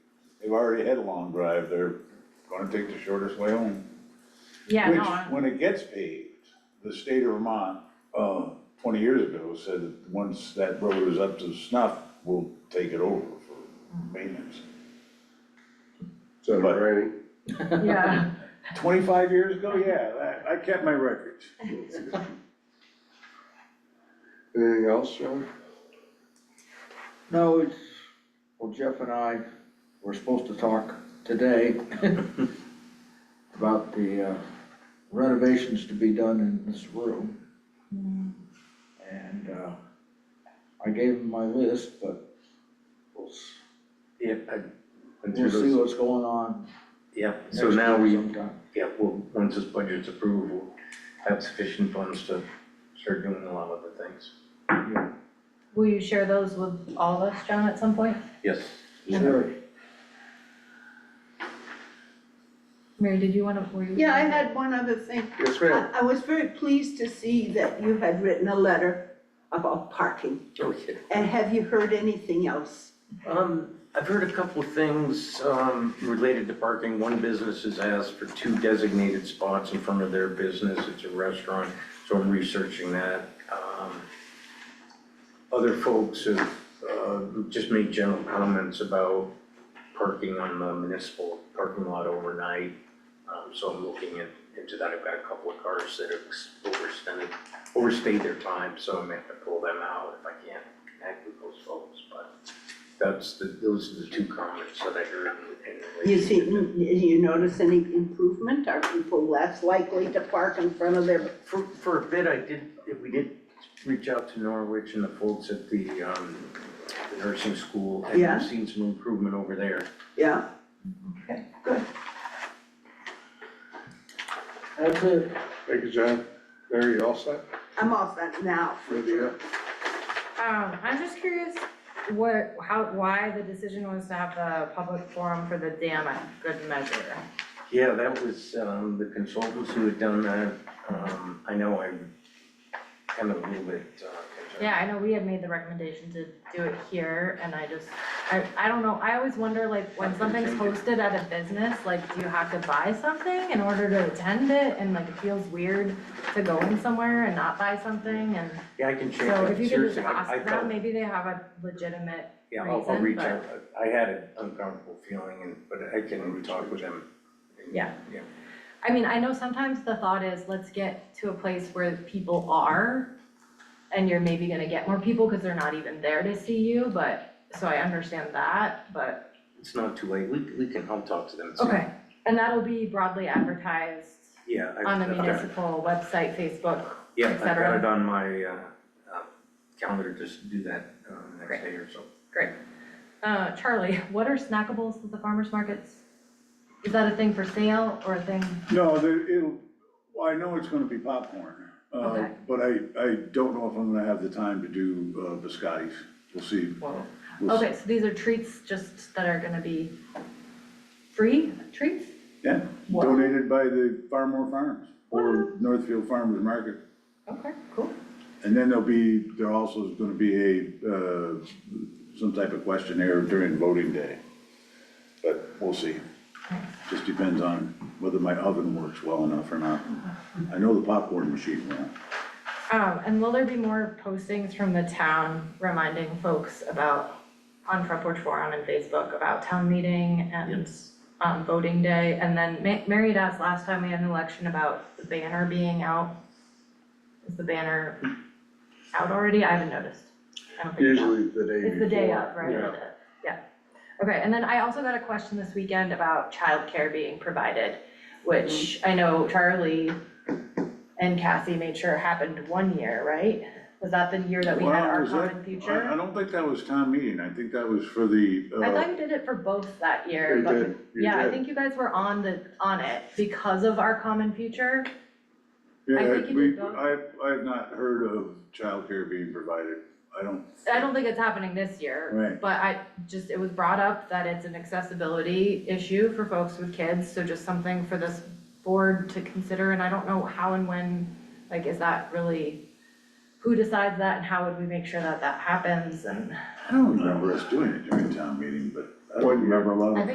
who've already had a long drive, they're gonna take the shortest way home. Yeah, no, Which, I- when it gets paved, the state of Vermont, uh, twenty years ago said that once that road is up to snuff, we'll take it over for maintenance. So But- raining. yeah, Twenty-five years ago, yeah, I, I kept my records. Anything else, John? No, it's, well, Jeff and I were supposed to talk today about the uh, renovations to be done in this room. And uh, I gave him my list, but we'll, s- Yeah, I, and through we'll see those, what's going on. yeah, so next now week we, sometime. yeah, well, once this budget's approved, we'll have sufficient funds to start doing a lot of the things. will you share those with all of us, John, at some point? Yes, Sure, Mary, did you wanna, were you? Yeah, I had one other thing. Yes, I, ma'am. I was very pleased to see that you had written a letter about parking. Okay, And have you heard anything else? um, I've heard a couple of things, um, related to parking. One business has asked for two designated spots in front of their business. It's a restaurant, so I'm researching that. Um, Other folks have, uh, just made general comments about parking on the municipal parking lot overnight. Um, so I'm looking in- into that. I've got a couple of cars that have overspent, overstayed their time, so I may have to pull them out if I can't connect with those folks, but. That's the, those are the two comments that I heard in, in relation. You to see, that. you notice any improvement? Are people less likely to park in front of their, For, for a bit, I did, we did reach out to Norwich and the folks at the, um, the nursing school. and Yeah. we've Seen some improvement over there. yeah? that's it. Thank you, John. Mary, you all set? I'm all set now for Ready to sure. go? Um, I'm just curious what, how, why the decision was to have the public forum for the dam at Good Measure. Yeah, that was, um, the consultants who had done that, um, I know I'm kind of a little bit, uh, concerned. Yeah, I know we had made the recommendation to do it here and I just, I, I don't know, I always wonder like when something's hosted at a business, like do you have to buy something in order to attend it? And like it feels weird to go in somewhere and not buy something and Yeah, I can check, so if it. you could just seriously, I, I ask felt. them, maybe they have a legitimate Yeah, I'll, I'll reason, reach but- out, I had an uncomfortable feeling and, but I can talk with them. Yeah. Yeah. I mean, I know sometimes the thought is, let's get to a place where people are, and you're maybe gonna get more people, cause they're not even there to see you, but, so I understand that, but, It's not too late, we, we can, I'll talk to them. and see. okay. And that'll be broadly advertised Yeah. I- on the I've got- municipal website, Facebook, Yeah, et I've got cetera. it on my, uh, uh, calendar, just do that, um, next Great. day or so. great. Uh, Charlie, what are snackables at the farmer's markets? Is that a thing for sale or a thing, No, there, it'll, well, I know it's gonna be popcorn, uh, Okay. but I, I don't know if I'm gonna have the time to do, uh, biscottis. We'll see. whoa, We'll see. okay, so these are treats just that are gonna be free treats? Yeah, Wow. donated by the Farmore Farms or Northfield Farmers Market. Okay, cool. And then there'll be, there also is gonna be a, uh, some type of questionnaire during voting day. But we'll see. Just depends on whether my oven works well enough or not. I know the popcorn machine will. Um, and will there be more postings from the town reminding folks about, on Front Porch Forum and Facebook about town meeting and, um, voting day? And then Ma- Mary had asked last time we had an election about the banner being out. Is the banner out already? I haven't noticed. I don't think so. Usually the day before. It's the day of, right? Yeah. Yeah. Okay, and then I also got a question this weekend about childcare being provided, which Mm-hmm. I know Charlie and Cassie made sure happened one year, right? Was that the year that we had Well, our was that- common I, I future? don't think that was town meeting. I think that was for the, uh. I thought you did it for both that year, You but- did, you yeah, I did. think you guys were on the, on it because of our common future. I Yeah, think you we- did both. I, I've not heard of childcare being provided. I don't, I don't think it's happening this year, Right. but I just, it was brought up that it's an accessibility issue for folks with kids, so just something for this board to consider, and I don't know how and when, like, is that really, who decides that and how would we make sure that that happens and? I don't remember us doing it during town meeting, but I don't remember a lot of. I think